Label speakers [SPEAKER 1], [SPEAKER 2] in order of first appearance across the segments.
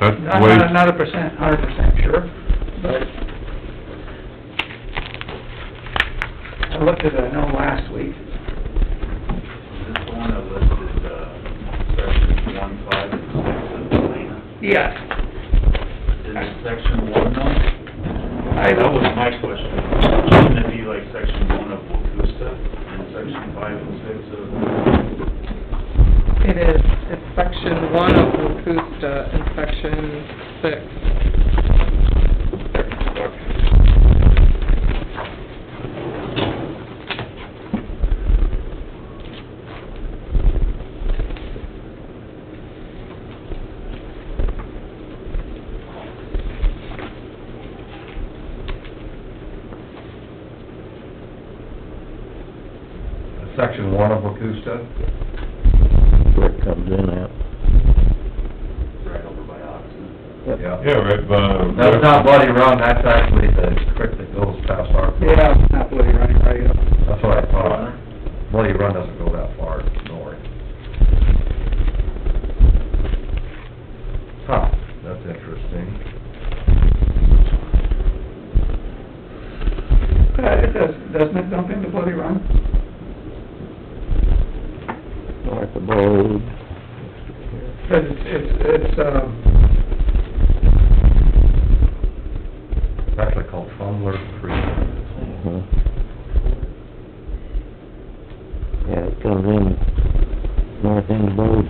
[SPEAKER 1] That's the
[SPEAKER 2] Not,
[SPEAKER 1] way-
[SPEAKER 2] not, not a percent, hundred percent sure, but I looked at it, I know last week,
[SPEAKER 3] This one that listed, uh, sections one, five, and six of the plan.
[SPEAKER 2] yes,
[SPEAKER 3] Is section one though?
[SPEAKER 2] I
[SPEAKER 3] That was
[SPEAKER 2] know,
[SPEAKER 3] my question. Shouldn't it be like section one of Wakusta and section five and six of,
[SPEAKER 4] It is, it's section one of Wakusta and section six.
[SPEAKER 1] Section one of Wakusta?
[SPEAKER 5] where it comes in at.
[SPEAKER 3] right over by Oxon?
[SPEAKER 1] Yeah, right, but...
[SPEAKER 6] That's not Bloody Run, that's actually the creek that goes past our,
[SPEAKER 2] yeah, it's not bloody running right up.
[SPEAKER 6] that's what I thought. Bloody Run doesn't go that far north. Huh, that's interesting.
[SPEAKER 2] Uh, it does, doesn't it dump into Bloody Run?
[SPEAKER 5] North of Bode.
[SPEAKER 2] Cause it's, it's, it's, um,
[SPEAKER 6] It's actually called Fumbler Creek.
[SPEAKER 5] Mhm. Yeah, it comes in north end of Bode.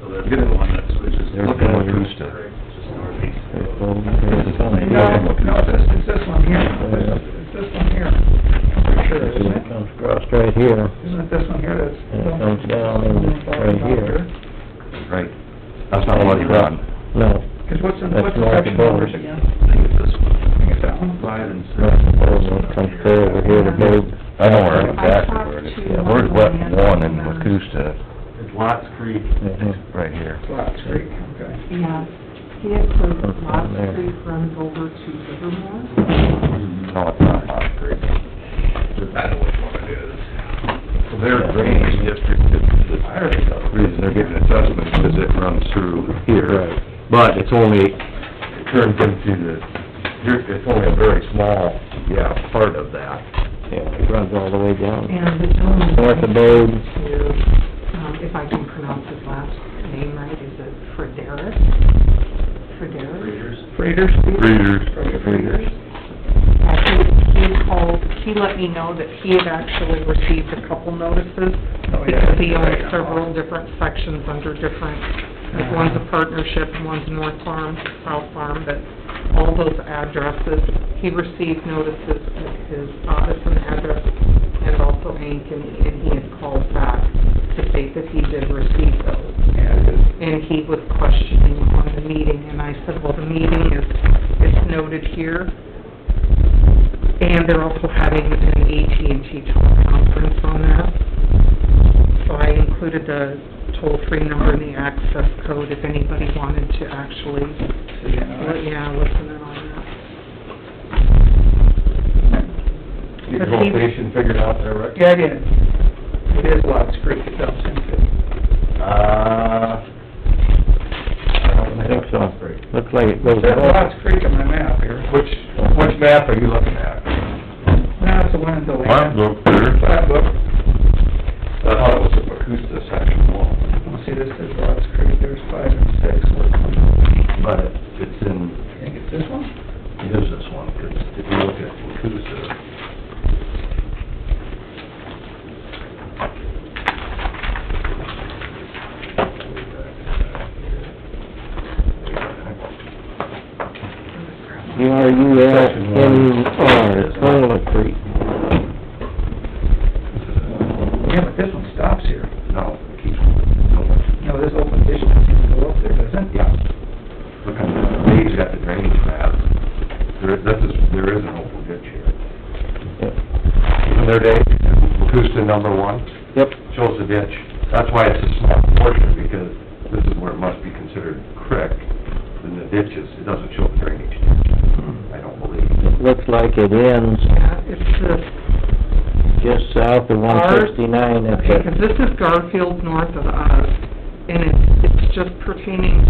[SPEAKER 3] So that's the one that switches.
[SPEAKER 5] There's Look at one.
[SPEAKER 6] Wakusta.
[SPEAKER 3] Just northeast
[SPEAKER 5] There's
[SPEAKER 3] of.
[SPEAKER 5] Bode,
[SPEAKER 6] It's only-
[SPEAKER 5] there's-
[SPEAKER 2] No, no, it's this, it's this one here, It's- it's this one here, I'm pretty sure, isn't
[SPEAKER 5] It
[SPEAKER 2] it?
[SPEAKER 5] comes across right here.
[SPEAKER 2] Isn't it this one here that's...
[SPEAKER 5] And it comes down in right here.
[SPEAKER 6] Right. That's not Bloody Run.
[SPEAKER 5] No,
[SPEAKER 2] Cause what's the,
[SPEAKER 5] That's
[SPEAKER 2] what's the
[SPEAKER 5] north of
[SPEAKER 2] section numbers
[SPEAKER 5] Boulder.
[SPEAKER 2] again?
[SPEAKER 3] I think it's this one.
[SPEAKER 2] I think it's that one.
[SPEAKER 3] Five and six.
[SPEAKER 5] north of Bode, and it comes clear over here to Bode.
[SPEAKER 6] I know where exactly where it is. Yeah, Where's Wet One and Wakusta?
[SPEAKER 3] It's Lots Creek.
[SPEAKER 5] Mhm.
[SPEAKER 6] Right here.
[SPEAKER 2] Lots Creek, okay.
[SPEAKER 7] Yeah, he had put
[SPEAKER 5] Comes from
[SPEAKER 7] Lost
[SPEAKER 5] there.
[SPEAKER 7] Creek runs over to Livermore.
[SPEAKER 6] No, it's not Lots Creek.
[SPEAKER 3] I know which one it is.
[SPEAKER 6] So their drainage district is the reason they're getting assessment, because it runs through here. But it's only, it turns into the, it's only a very small, yeah, part of that.
[SPEAKER 5] Yeah, it runs all the way down.
[SPEAKER 7] And the gentleman.
[SPEAKER 5] North of Bode.
[SPEAKER 7] To, um, if I can pronounce his last name right, is it Frederis? Frederis?
[SPEAKER 3] Readers?
[SPEAKER 2] Freighters?
[SPEAKER 1] Breeders.
[SPEAKER 7] Frederis. Uh, he, he called, he let me know that he had actually received a couple notices.
[SPEAKER 2] Oh, yeah.
[SPEAKER 7] Because he owns several different sections under different, like one's a partnership, one's North Farm, South Farm, but all those addresses, he received notices at his office and address, and also Hank, and, and he had called back to state that he did receive those. And he was questioning on the meeting, and I said, well, the meeting is, it's noted here, and they're also having an AT&T teleconference on that. So I included the toll-free number and the access code if anybody wanted to actually, yeah, listen in on
[SPEAKER 6] Get your location figured out there, Rick?
[SPEAKER 2] Yeah, it is. It is Lots Creek it dumps into.
[SPEAKER 6] Uh, I don't think so.
[SPEAKER 5] Looks like it goes
[SPEAKER 2] There's
[SPEAKER 5] north.
[SPEAKER 2] Lots Creek on my map here.
[SPEAKER 6] Which, which map are you looking at?
[SPEAKER 2] No, it's the one in Deland.
[SPEAKER 1] Plant book there.
[SPEAKER 2] Flat book.
[SPEAKER 6] I thought it was the Wakusta section one.
[SPEAKER 2] Well, see, this is Lots Creek, there's five and six, which one?
[SPEAKER 6] But it's in,
[SPEAKER 2] I think it's this one?
[SPEAKER 6] it is this one, because if you look at Wakusta.
[SPEAKER 5] U R U L N E R, Toilet Creek.
[SPEAKER 2] Yeah, but this one stops here.
[SPEAKER 6] No, it keeps going.
[SPEAKER 2] No, this open ditch doesn't even go up there, does it?
[SPEAKER 6] Yeah. Look on the, Dave's got the drainage map. There, this is, there is an open ditch here.
[SPEAKER 5] Yep.
[SPEAKER 6] Isn't there, Dave? Wakusta number one?
[SPEAKER 5] Yep.
[SPEAKER 6] shows the ditch. That's why it's a small portion, because this is where it must be considered creek, and the ditches, it doesn't show the drainage ditch, I don't believe.
[SPEAKER 5] It looks like it ends
[SPEAKER 7] that. Yeah, it's the,
[SPEAKER 5] just south of one sixty-nine at
[SPEAKER 7] okay,
[SPEAKER 5] the
[SPEAKER 7] 'cause this is Garfield north of us, and it's, it's just pertaining